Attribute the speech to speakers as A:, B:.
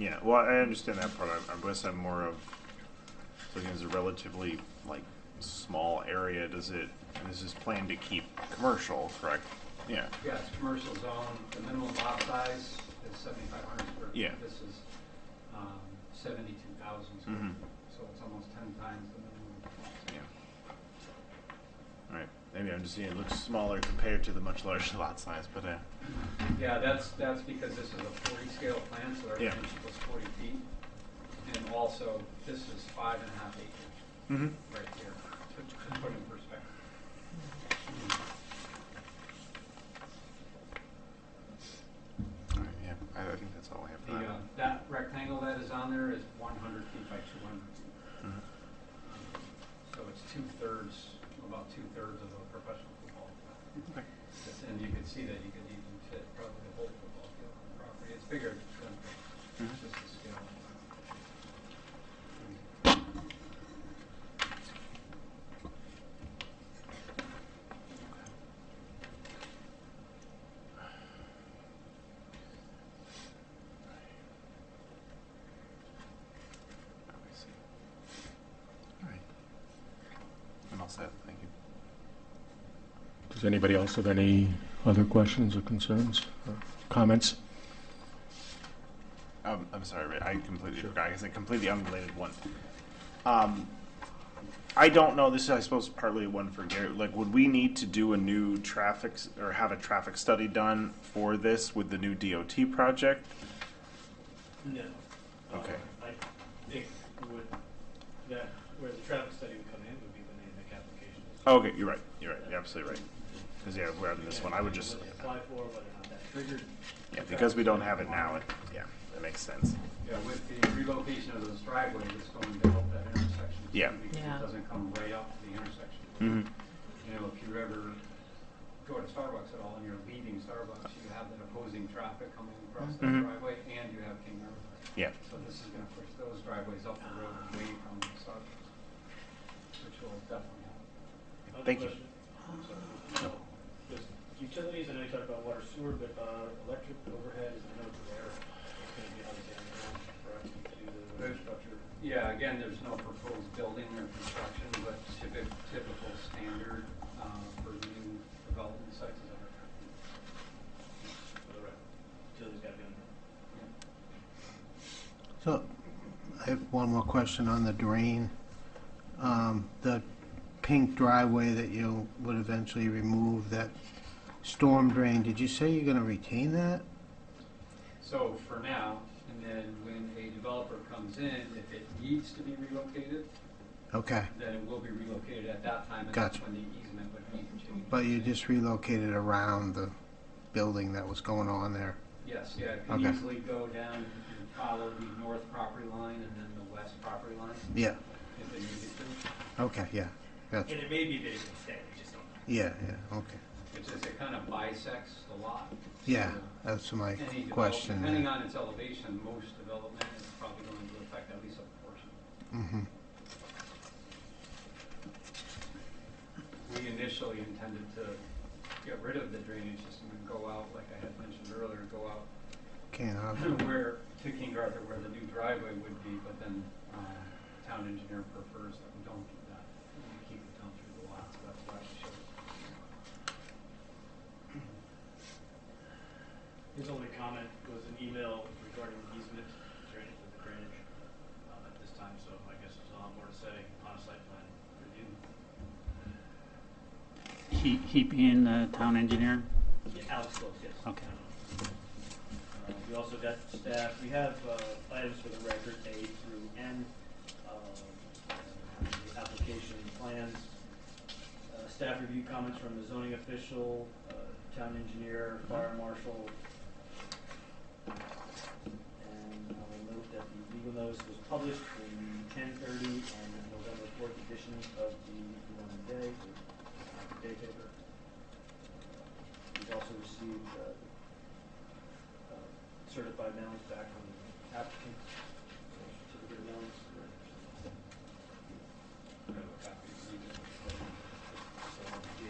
A: I understand that part. I, I guess I'm more of looking as a relatively like small area. Does it? This is planned to keep commercial, correct? Yeah.
B: Yes, commercial zone, the minimum lot size is seventy-five hundred square feet.
A: Yeah.
B: This is um, seventy-two thousand square
A: Mhm.
B: feet, so it's almost ten times the minimum.
A: Yeah. All right. Maybe I'm just seeing it looks smaller compared to the much larger lot size, but uh,
B: Yeah, that's, that's because this is a forty scale plan, so
A: Yeah.
B: everything was forty feet. And also, this is five and a half acres
A: mm-hmm.
B: right here, to to put in perspective. Mm-hmm.
A: all right, yeah. I, I think that's all I have for
B: The,
A: that.
B: uh, that rectangle that is on there is one hundred feet by two hundred feet.
A: Mhm.
B: So it's two-thirds, about two-thirds of a professional football field.
A: Okay.
B: And you could see that you could even fit probably the whole football field on the property. It's bigger than
A: Mhm.
B: just the scale.
A: Oh, I see. All right. I'm all set. Thank you.
C: Does anybody else have any other questions or concerns or comments?
A: Um, I'm sorry, Ray, I completely
C: Sure.
A: forgot. I guess a completely unrelated one. Um, I don't know. This is, I suppose, partly one for Gary. Like, would we need to do a new traffic s- or have a traffic study done for this with the new DOT project?
D: No.
A: Okay.
D: Uh, I think would, that, where the traffic study would come in would be when they make applications.
A: Oh, okay, you're right. You're right. You're absolutely right. Because yeah, we're on this one. I would just
D: What they apply for, whether or not that triggered.
A: yeah, because we don't have it now. It, yeah, that makes sense.
B: Yeah, with the relocation of those driveways, it's going to help that intersection. too,
A: Yeah.
B: Because it
E: Yeah.
B: doesn't come right up to the intersection.
A: Mm-hmm.
B: You know, if you ever go to Starbucks at all and you're leaving Starbucks, you have that opposing traffic coming across that
A: Mhm.
B: driveway and you have King River.
A: Yeah.
B: So this is gonna push those driveways up the road and away from Starbucks, which will definitely help.
D: Other
A: Thank you.
D: question? I'm sorry. No. Just Utilities, I know you talked about water sewer, but uh, electric overhead is another there. It's going to be obviously on the ground for us to do the infrastructure.
B: Yeah, again, there's no proposed building or construction, but typical, typical standard, uh, for new development sites is under.
D: for the rec- Utilities got to be on there.
F: So, I have one more question on the drain. Um, The pink driveway that you would eventually remove, that storm drain, did you say you're going to retain that?
B: So for now, and then when a developer comes in, if it needs to be relocated,
F: Okay,
B: then it will be relocated at that time. and that's
F: Gotcha.
B: When the easement would need to change.
F: but you just relocated around the building that was going on there.
B: Yes, yeah, it can
F: Okay.
B: easily go down and follow the north property line and then the west property line
F: Yeah,
B: if they needed to.
F: okay, yeah, gotcha.
D: And it may be that it can stay, we just don't know.
F: Yeah, yeah, okay.
B: It's just, it kind of bisects the lot.
F: Yeah,
B: So
F: that's my
B: Any develop-
F: question.
B: Depending on its elevation, most development is probably going to affect at least a portion.
F: Mhm.
B: We initially intended to get rid of the drainage system and go out, like I had mentioned earlier, go out
F: Can't, uh,
B: where, to King Arthur, where the new driveway would be, but then um, town engineer prefers that we don't do that. We Keep it down through the lot, so that's why it shows.
D: His only comment was an email regarding easement drainage with the drainage um, at this time, so I guess there's a lot more to say on a site plan review.
G: He, he being the town engineer?
D: Alex Close, yes.
G: Okay.
D: Uh, We also got staff, we have uh, items for the record, A through N, um, the application plans, uh, staff review comments from the zoning official, uh, town engineer, fire marshal. And um, I will note that the legal notice was published in ten thirty on November fourth edition of the Vermont Day, the day uh, paper. We've also received uh, uh, certified mailings back